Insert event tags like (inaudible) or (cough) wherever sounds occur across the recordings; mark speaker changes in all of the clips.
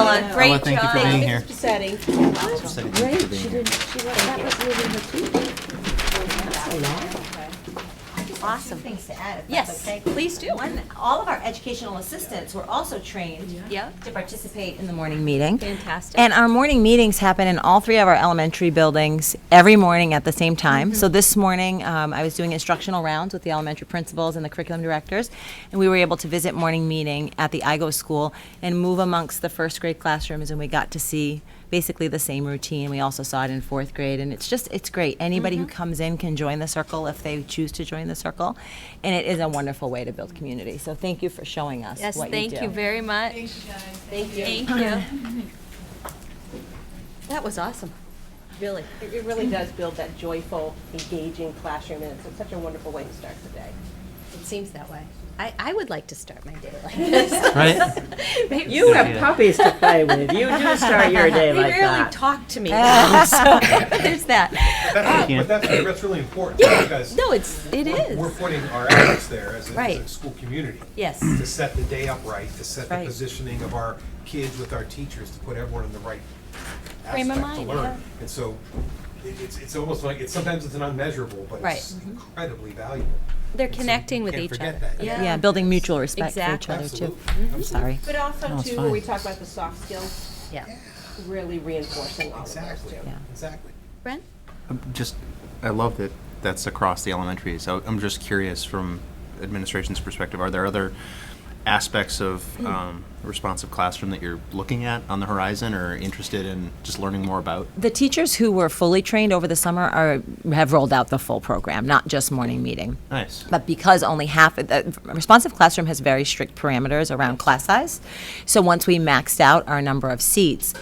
Speaker 1: Ella,
Speaker 2: Yeah.
Speaker 1: great
Speaker 3: Ella,
Speaker 1: job.
Speaker 3: thank you for being here.
Speaker 2: It's upsetting.
Speaker 3: Great, she did.
Speaker 4: Awesome. Things to add, if
Speaker 1: Yes,
Speaker 4: that's okay.
Speaker 1: please do.
Speaker 4: One, all of our educational assistants were also trained
Speaker 1: Yep,
Speaker 4: to participate in the morning meeting.
Speaker 1: fantastic.
Speaker 4: And our morning meetings happen in all three of our elementary buildings every morning at the same
Speaker 1: Mm-hmm.
Speaker 4: time. So this morning, um, I was doing instructional rounds with the elementary principals and the curriculum directors, and we were able to visit morning meeting at the IGO school and move amongst the first grade classrooms, and we got to see basically the same routine. We also saw it in fourth grade, and it's just it's great. Anybody
Speaker 1: Mm-hmm.
Speaker 4: who comes in can join the circle if they choose to join the circle, and it is a wonderful way to build community. So thank you for showing us
Speaker 1: Yes,
Speaker 4: what you
Speaker 1: thank
Speaker 4: do.
Speaker 1: you very much. Thank you. Thank you. That was awesome, really.
Speaker 2: It it really does build that joyful, engaging classroom, and it's such a wonderful way to start the day.
Speaker 1: It seems that way. I, I would like to start my day like this.
Speaker 3: Right?
Speaker 1: Maybe
Speaker 5: You
Speaker 3: Yeah.
Speaker 5: have puppies to play with. You do start your day
Speaker 1: They
Speaker 5: like
Speaker 1: rarely
Speaker 5: that.
Speaker 1: talk to me, though, so there's that.
Speaker 6: That's,
Speaker 3: Yeah.
Speaker 6: but that's, that's really important because
Speaker 1: Ah. No, it's, it
Speaker 6: we're, we're
Speaker 1: is.
Speaker 6: putting our efforts there as a, as
Speaker 1: Right.
Speaker 6: a school community.
Speaker 1: Yes.
Speaker 6: To set the day up right, to set the
Speaker 4: Right.
Speaker 6: positioning of our kids with our teachers, to put everyone in the right
Speaker 1: Frame of
Speaker 6: aspect to
Speaker 1: mind,
Speaker 6: learn.
Speaker 1: yeah.
Speaker 6: And so it, it's, it's almost like, it's, sometimes it's an unmeasurable, but
Speaker 1: Right. Mm-hmm.
Speaker 6: it's incredibly valuable.
Speaker 1: They're
Speaker 6: And so
Speaker 1: connecting
Speaker 6: you
Speaker 1: with
Speaker 6: can't
Speaker 1: each
Speaker 6: forget
Speaker 1: other.
Speaker 6: that.
Speaker 1: Yeah.
Speaker 4: Yeah, building mutual respect for each other
Speaker 6: Absolutely.
Speaker 4: too. I'm
Speaker 1: Mm-hmm.
Speaker 4: sorry.
Speaker 2: But also
Speaker 3: it's
Speaker 2: too, when we
Speaker 3: fine.
Speaker 2: talk about the soft skills,
Speaker 1: Yeah.
Speaker 2: really reinforcing all of those
Speaker 6: Exactly,
Speaker 2: too.
Speaker 6: exactly.
Speaker 1: Brent?
Speaker 3: Just, I love that that's across the elementaries. I- I'm just curious from administration's perspective, are there other aspects of um, responsive classroom that you're looking at on the horizon or interested in just learning more about?
Speaker 4: The teachers who were fully trained over the summer are, have rolled out the full program, not just morning meeting.
Speaker 3: Nice.
Speaker 4: But because only half, the responsive classroom has very strict parameters around class size. So once we maxed out our number of seats,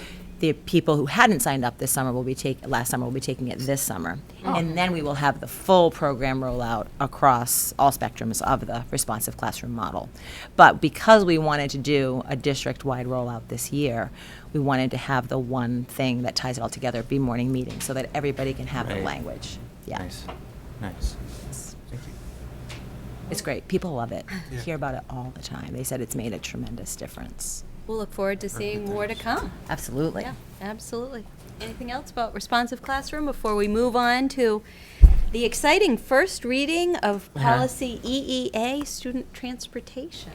Speaker 4: the people who hadn't signed up this summer will be take, last summer will be taking it this summer.
Speaker 3: Oh.
Speaker 4: And then we will have the full program rollout across all spectrums of the responsive classroom model. But because we wanted to do a district-wide rollout this year, we wanted to have the one thing that ties it all together be morning meetings so that everybody can have the
Speaker 3: Right.
Speaker 4: language. Yeah.
Speaker 3: Nice, nice.
Speaker 4: It's great. People love it.
Speaker 6: Yeah.
Speaker 4: Hear about it all the time. They said it's made a tremendous difference.
Speaker 1: (laughs) We'll look forward to seeing more to come.
Speaker 4: Absolutely.
Speaker 1: Yeah, absolutely. Anything else about responsive classroom before we move on to the exciting first reading of policy EEA, student transportation?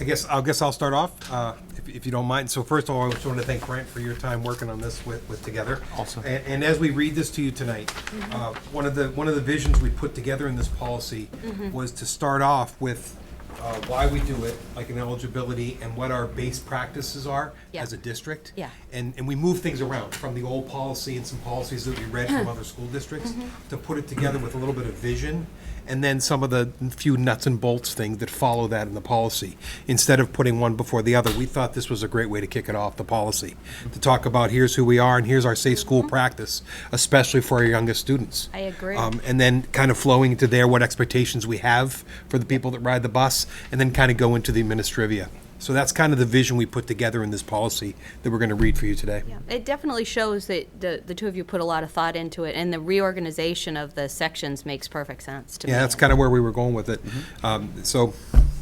Speaker 6: I guess, I guess I'll start off, uh, if- if you don't mind. So first of all, I just want to thank Brent for your time working on this with, with together.
Speaker 3: Awesome.
Speaker 6: And, and as we read this to you tonight,
Speaker 1: Mm-hmm.
Speaker 6: uh, one of the, one of the visions we put together in this policy
Speaker 1: Mm-hmm.
Speaker 6: was to start off with uh, why we do it, like an eligibility, and what our base practices are
Speaker 1: Yeah.
Speaker 6: as a district.
Speaker 1: Yeah.
Speaker 6: And, and we move things around from the old policy and some policies that we read from other school districts
Speaker 1: Mm-hmm.
Speaker 6: to put it together with a little bit of vision and then some of the few nuts and bolts things that follow that in the policy. Instead of putting one before the other, we thought this was a great way to kick it off, the policy, to talk about here's who we are and here's our safe school practice, especially for our youngest students.
Speaker 1: Mm-hmm. I agree.
Speaker 6: Um, and then kind of flowing into there what expectations we have for the people that ride the bus, and then kind of go into the administrivia. So that's kind of the vision we put together in this policy that we're going to read for you today.
Speaker 1: It definitely shows that the, the two of you put a lot of thought into it, and the reorganization of the sections makes perfect sense to me.
Speaker 6: Yeah, that's kind of where we were going with it. Um, so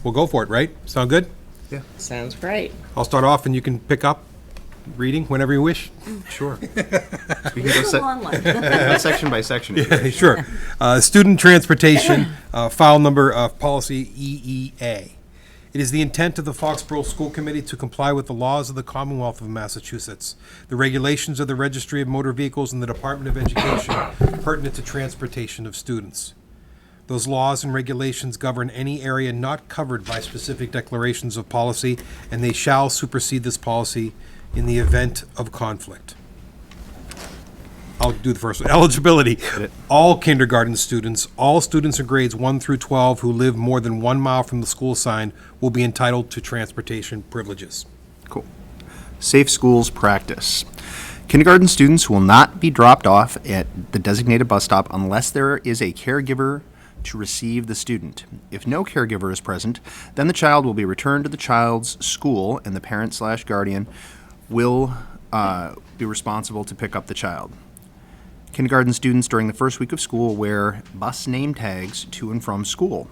Speaker 6: we'll go for it, right? Sound good?
Speaker 5: Sounds great.
Speaker 6: I'll start off and you can pick up reading whenever you wish.
Speaker 3: Sure. We can go
Speaker 1: It's a
Speaker 3: sec-
Speaker 1: long one.
Speaker 3: go (laughs) section by section. if you
Speaker 6: (laughs)
Speaker 3: wish.
Speaker 6: sure. Uh, student transportation, uh, file number of policy EEA. It is the intent of the Foxborough School Committee to comply with the laws of the Commonwealth of Massachusetts, the regulations of the Registry of Motor Vehicles and the Department of Education (coughs) pertinent to transportation of students. Those laws and regulations govern any area not covered by specific declarations of policy, and they shall supersede this policy in the event of conflict. I'll do the first one. Eligibility. All kindergarten students, all students in grades 1 through 12 who live more than one mile from the school sign will be entitled to transportation privileges.
Speaker 3: Cool. Safe Schools Practice. Kindergarten students will not be dropped off at the designated bus stop unless there is a caregiver to receive the student. If no caregiver is present, then the child will be returned to the child's school and the parent slash guardian will uh, be responsible to pick up the child. Kindergarten students during the first week of school wear bus name tags to and from school.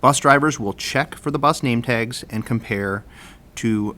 Speaker 3: Bus drivers will check for the bus name tags and compare to